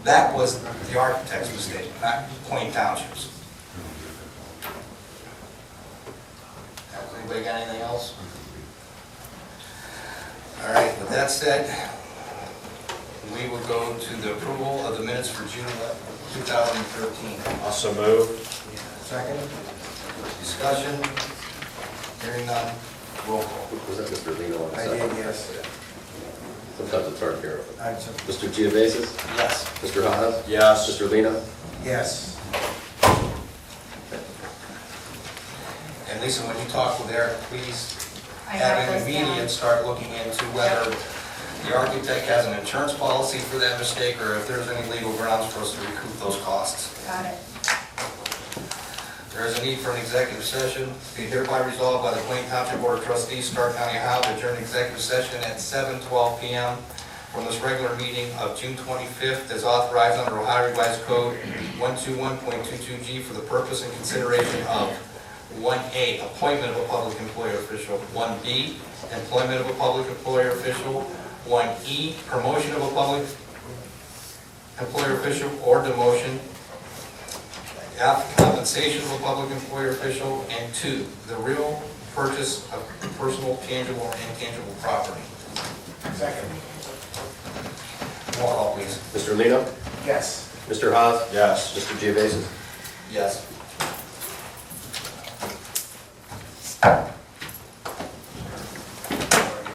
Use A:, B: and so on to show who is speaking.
A: That was the architect's mistake, not Plain Township's. Anybody got anything else? All right, with that said, we will go to the approval of the minutes for June 11, 2013.
B: Also move.
A: Second, discussion, hearing none, roll call.
C: Was that Mr. Lino on the
D: I
C: second?
D: did, yes.
C: Sometimes it's hard to hear.
D: I'm so-
C: Mr. Geovasis?
A: Yes.
C: Mr. Haas?
B: Yes.
C: Mr. Lino?
D: Yes.
A: And Lisa, when you talk with Eric, please
E: I
A: have
E: have
A: him
E: those down.
A: immediate start looking into whether the architect has an insurance policy for that mistake, or if there's any legal grounds for us to recoup those costs.
E: Got it.
A: There is a need for an executive session. Be hereby resolved by the Plain Township Board of Trustees, Stark County, Ohio, to adjourn executive session at 7:12 PM from this regular meeting of June 25th as authorized under Ohio Revised Code 121.22G for the purpose and consideration of 1A, appointment of a public employer official, 1B, employment of a public employer official, 1E, promotion of a public employer official or demotion, F, compensation of a public employer official, and two, the real purchase of personal tangible and intangible property.
D: Second.
A: Roll call, please.
C: Mr. Lino?
D: Yes.
C: Mr. Haas?
B: Yes.
C: Mr. Geovasis?
A: Yes.